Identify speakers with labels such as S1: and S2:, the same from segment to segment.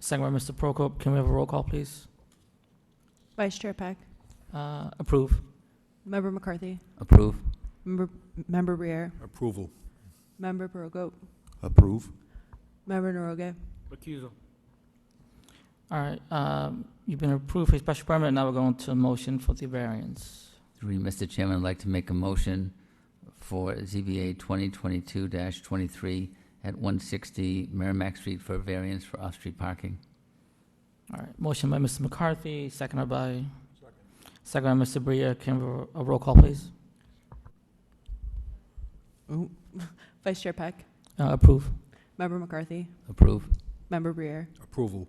S1: Second by Mr. Prokop. Can we have a roll call, please?
S2: Vice Chair Peck,
S1: Uh, Approve.
S2: Member McCarthy,
S3: Approve.
S2: Member Member Brier,
S4: Approval.
S2: Member Perogo,
S4: Approve.
S2: Member Naroge.
S5: recusal,
S1: All right, um, you've been approved for your special permit, now we're going to a motion for the variance.
S3: Through you, Mr. Chairman, I'd like to make a motion for ZBA 2022-23 at 160 Merrimack Street for a variance for off-street parking.
S1: All right, motion by Mr. McCarthy, seconded by, second by Mr. Bria. Can we have a roll call, please?
S2: Vice Chair Peck,
S1: Uh, Approve.
S2: Member McCarthy,
S3: Approve.
S2: Member Brier,
S4: Approval.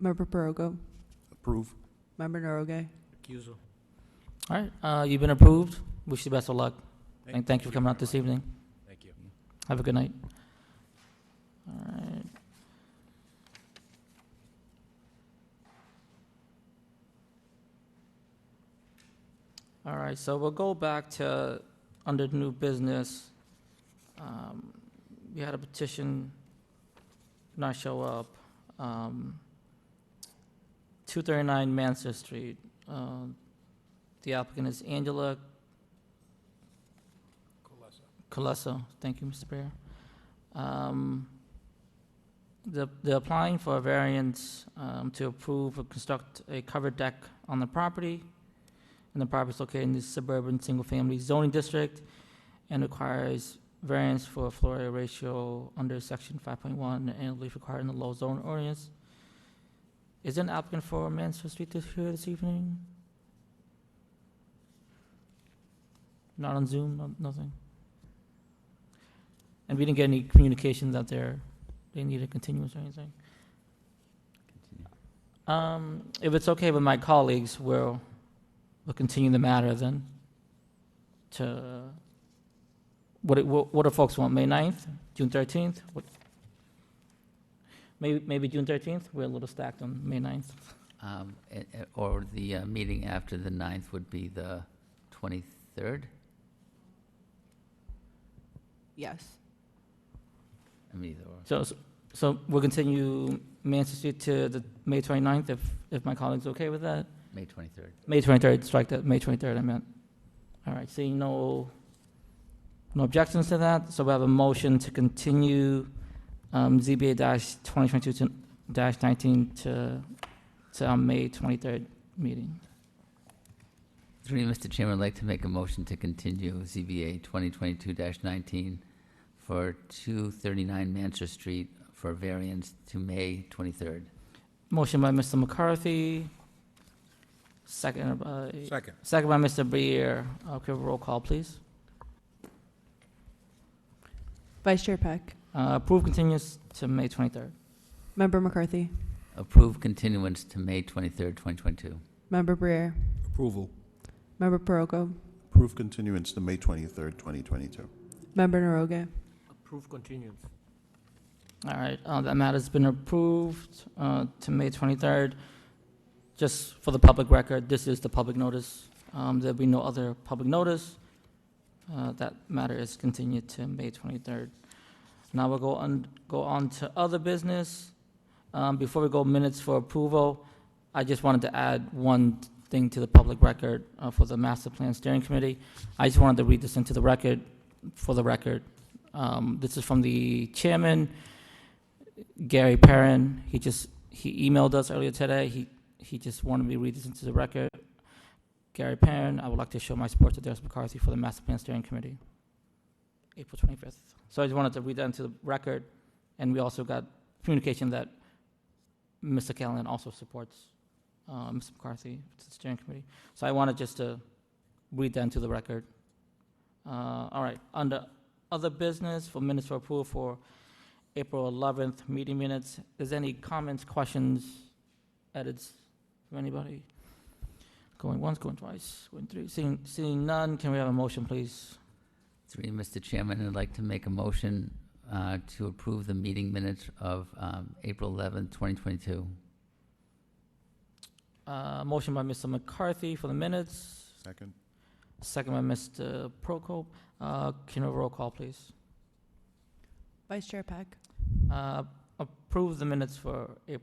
S2: Member Perogo,
S4: Approve.
S2: Member Naroge.
S5: recusal.
S1: All right, uh, you've been approved. Wish you the best of luck, and thank you for coming out this evening.
S4: Thank you.
S1: Have a good night. All right. All right, so we'll go back to, under new business. Um, We had a petition not show up. um, 239 Mansour Street. Um, The applicant is Angela Colesso, thank you, Mr. Bear. Um, the- They're applying for a variance um, to approve or construct a covered deck on the property, and the property is located in the suburban single-family zoning district and requires variance for a floor area ratio under section 5.1 and relief required in the low zone ordinance. Is there an applicant for Mansfield Street this here this evening? Not on Zoom, no- nothing? And we didn't get any communications out there, they need a continuance or anything. Um, if it's okay with my colleagues, we'll, we'll continue the matter then to, what, it- what what do folks want, May 9th, June thirteenth? Maybe, maybe June thirteenth, we're a little stacked on May 9th.
S3: Um, a- a- Or the uh, meeting after the 9th would be the 23rd?
S2: Yes.
S3: I mean, either or.
S1: So, so we'll continue Manchester Street to the May 29th, if, if my colleagues okay with that?
S3: May 23rd.
S1: May 23rd, strike that, May 23rd, I meant. All right, seeing no, no objections to that, so we have a motion to continue um, ZBA dash 2022 to- dash 19 to, to our May 23rd meeting.
S3: Through you, Mr. Chairman, I'd like to make a motion to continue ZBA 2022-19 for 239 Manchester Street for a variance to May 23rd.
S1: Motion by Mr. McCarthy, second by,
S4: Second.
S1: second by Mr. Brier. Okay, roll call, please.
S2: Vice Chair Peck,
S1: Uh, Approve continues to May 23rd.
S2: Member McCarthy,
S3: Approve continuance to May 23rd, 2022.
S2: Member Brier,
S4: Approval.
S2: Member Perogo,
S6: Approve continuance to May 23rd, 2022.
S2: Member Naroge.
S5: Approve continuance,
S1: All right, uh, that matter's been approved uh, to May 23rd. Just for the public record, this is the public notice. Um, There'll be no other public notice. Uh, That matter is continued to May 23rd. Now we'll go on, go on to other business. Um, Before we go minutes for approval, I just wanted to add one thing to the public record uh, for the Master Plan Steering Committee. I just wanted to read this into the record, for the record. Um, This is from the chairman. Gary Perrin, he just, he emailed us earlier today, he, he just wanted me to read this into the record. Gary Perrin, I would like to show my support to Dennis McCarthy for the Master Plan Steering Committee, April 25th. So I just wanted to read that into the record, and we also got communication that Mr. Callen also supports uh, Mr. McCarthy to the steering committee. So I wanted just to read that into the record. Uh, All right, under other business, for minutes for approval for April 11th meeting minutes. Is any comments, questions, edits from anybody? Going once, going twice, going three. Seeing, seeing none, can we have a motion, please?
S3: Through you, Mr. Chairman, I'd like to make a motion uh, to approve the meeting minutes of um, April 11th, 2022.
S1: Uh, Motion by Mr. McCarthy for the minutes,
S6: Second?
S1: second by Mr. Prokop. Uh, Can we have a roll call, please?
S2: Vice Chair Peck,
S1: Uh, Approve the minutes for April